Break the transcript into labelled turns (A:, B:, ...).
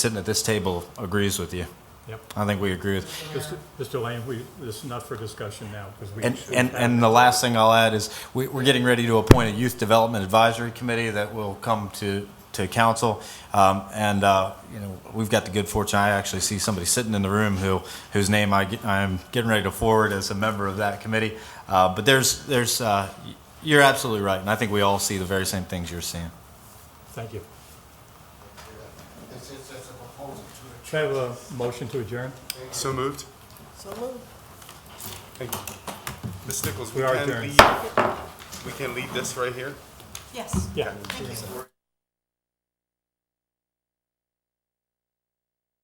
A: sitting at this table agrees with you.
B: Yep.
A: I think we agree with.
B: Mr. Mr. Lane, we, this is not for discussion now, because we.
A: And,
B: should
A: and,
B: have-
A: and the last thing I'll add is we, we're getting ready to appoint a youth development advisory committee that will come to, to council. Um, and, uh, you know, we've got the good fortune, I actually see somebody sitting in the room who, whose name I get, I'm getting ready to forward as a member of that committee. Uh, but there's, there's, uh, y- you're absolutely right. And I think we all see the very same things you're seeing.
B: Thank you.
C: It's, it's, it's a proposal to a
B: Should I have a motion to adjourn?
D: So moved.
E: So moved.
D: Thank you. Ms. Nichols,
B: We
D: we
B: are
D: can
B: adjourned.
D: leave, we can leave this right here?
E: Yes.
B: Yeah.
E: Thank you.